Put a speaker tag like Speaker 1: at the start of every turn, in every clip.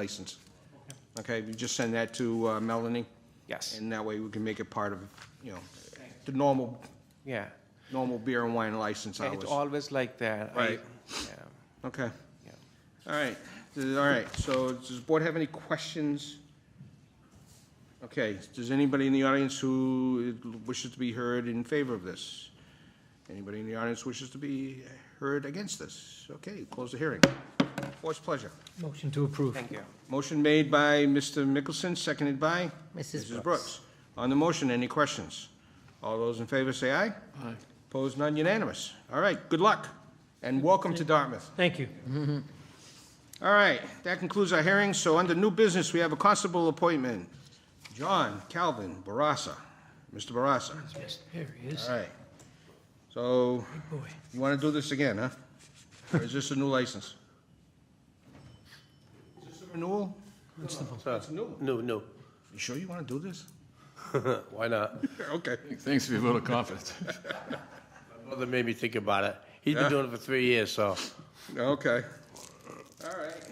Speaker 1: license. Okay, we just send that to uh, Melanie,
Speaker 2: Yes,
Speaker 1: and that way we can make it part of, you know, the normal,
Speaker 2: yeah.
Speaker 1: normal beer and wine license
Speaker 2: It's
Speaker 1: hours.
Speaker 2: always like that. I-
Speaker 1: Right.
Speaker 2: Yeah,
Speaker 1: Okay,
Speaker 2: yeah.
Speaker 1: all right, Th- all right, so does the board have any questions? Okay, does anybody in the audience who wishes to be heard in favor of this? Anybody in the audience wishes to be heard against this? Okay, close the hearing. Board's pleasure.
Speaker 3: Motion to approve.
Speaker 2: Thank you.
Speaker 1: Motion made by Mr. Mickelson, seconded by?
Speaker 3: Mrs. Brooks.
Speaker 1: On the motion, any questions? All those in favor say aye. Aye. Opposed, none unanimous. All right, good luck, and welcome to Dartmouth.
Speaker 3: Thank you.
Speaker 1: All right, that concludes our hearing, so under new business, we have a constable appointment. John Calvin Barassa, Mr. Barassa.
Speaker 3: Here he is,
Speaker 1: All right. So,
Speaker 3: boy.
Speaker 1: you want to do this again, huh? Or is this a new license? Is this a renewal? It's a new one.
Speaker 4: No, no.
Speaker 1: You sure you want to do this?
Speaker 4: Why not?
Speaker 1: Okay.
Speaker 5: Thanks for your vote of confidence.
Speaker 4: My brother made me think about it. He's been
Speaker 1: Yeah.
Speaker 4: doing it for three years, so.
Speaker 1: Okay. All right.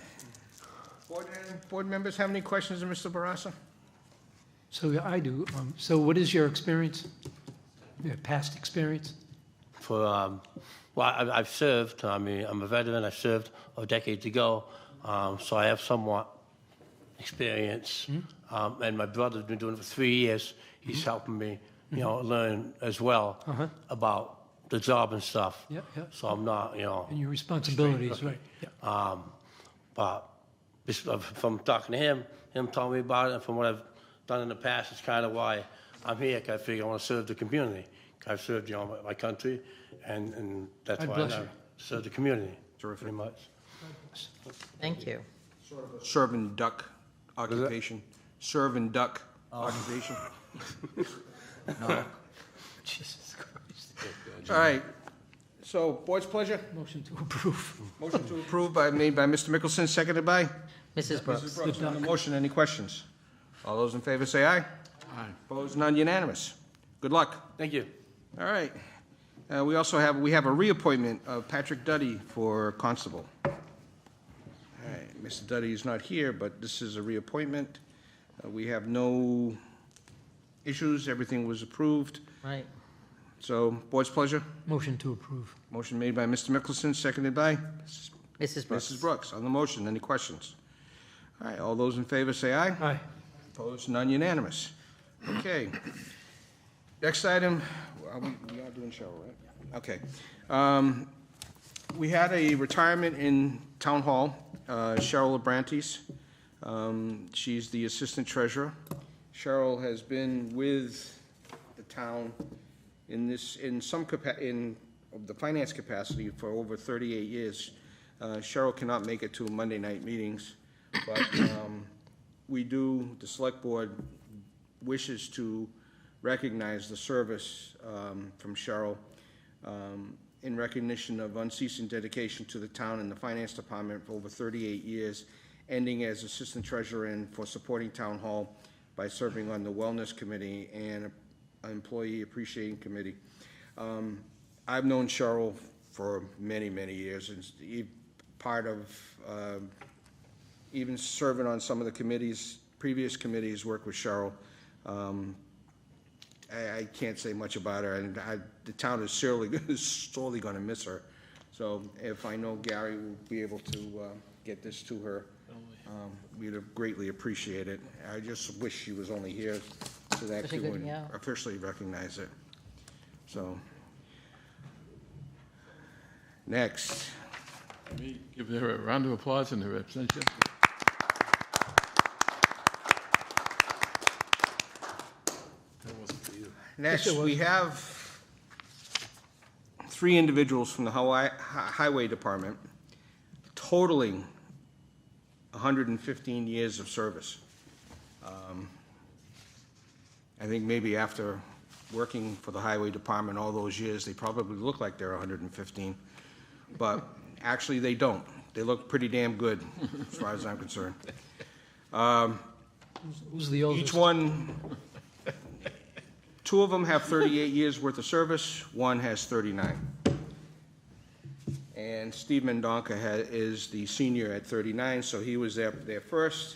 Speaker 1: Board, board members have any questions of Mr. Barassa?
Speaker 3: So yeah, I do. Um, So what is your experience? Your past experience?
Speaker 4: For um, well, I, I've served. I mean, I'm a veteran. I served a decade ago, um, so I have somewhat experience. Um, and my brother's been doing it for three years. He's helping me, you know, learn as well
Speaker 3: Uh-huh.
Speaker 4: about the job and stuff.
Speaker 3: Yep, yep.
Speaker 4: So I'm not, you know.
Speaker 3: And your responsibilities, right? Yeah.
Speaker 4: Um, but this, uh, from talking to him, him telling me about it, and from what I've done in the past, it's kind of why I'm here. 'cause I figure I want to serve the community. I've served, you know, my, my country, and, and that's
Speaker 3: God
Speaker 4: why
Speaker 3: bless
Speaker 4: I
Speaker 3: you.
Speaker 4: serve the community.
Speaker 1: Terrific.
Speaker 4: Pretty much.
Speaker 6: Thank you.
Speaker 1: Serve and duck occupation. Serve and duck occupation.
Speaker 3: Jesus Christ.
Speaker 1: All right. So, board's pleasure.
Speaker 3: Motion to approve.
Speaker 1: Motion to approve by, made by Mr. Mickelson, seconded by?
Speaker 6: Mrs.
Speaker 1: Mrs.
Speaker 6: Brooks,
Speaker 1: Brooks. On the motion, any questions? All those in favor say aye. Aye. Opposed, none unanimous. Good luck.
Speaker 4: Thank you.
Speaker 1: All right. Uh, We also have, we have a reappointment of Patrick Duddy for constable. All right, Mr. Duddy is not here, but this is a reappointment. Uh, We have no issues, everything was approved.
Speaker 6: right.
Speaker 1: So, board's pleasure.
Speaker 3: Motion to approve.
Speaker 1: Motion made by Mr. Mickelson, seconded by
Speaker 6: Mrs.
Speaker 1: Mrs.
Speaker 6: Brooks,
Speaker 1: Brooks. On the motion, any questions? All right, all those in favor say aye.
Speaker 3: Aye.
Speaker 1: Opposed, none unanimous. Okay. Next item, are we we are doing Cheryl, right? Okay. Um, We had a retirement in Town Hall, uh, Cheryl Labrantes. Um, She's the Assistant Treasurer. Cheryl has been with the town in this, in some capa, in the finance capacity for over 38 years. Uh, Cheryl cannot make it to Monday night meetings, but um, we do, the select board wishes to recognize the service um, from Cheryl um, in recognition of unceasing dedication to the town and the finance department for over 38 years, ending as assistant treasurer and for supporting town hall by serving on the wellness committee and employee appreciation committee. Um, I've known Cheryl for many, many years, and e- part of um, even serving on some of the committees, previous committees, worked with Cheryl. Um, I, I can't say much about her, and I, the town is surely, is sorely gonna miss her. So if I know Gary will be able to, uh, get this to her, um, we'd greatly appreciate it. I just wish she was only here so that
Speaker 6: She
Speaker 1: she
Speaker 6: could,
Speaker 1: would
Speaker 6: yeah.
Speaker 1: officially recognize it. So. Next.
Speaker 5: Let me Give her a round of applause and her abstention.
Speaker 1: Next, we have three individuals from the Hawaii, Hi- Highway Department totaling hundred and fifteen years of service. Um, I think maybe after working for the Highway Department all those years, they probably look like they're hundred and fifteen. But actually, they don't. They look pretty damn good, as far as I'm concerned.
Speaker 3: Who's the oldest?
Speaker 1: Each one, two of them have 38 years' worth of service, one has 39. And And Steve Mendonca had, is the senior at 39, so he was there, there first.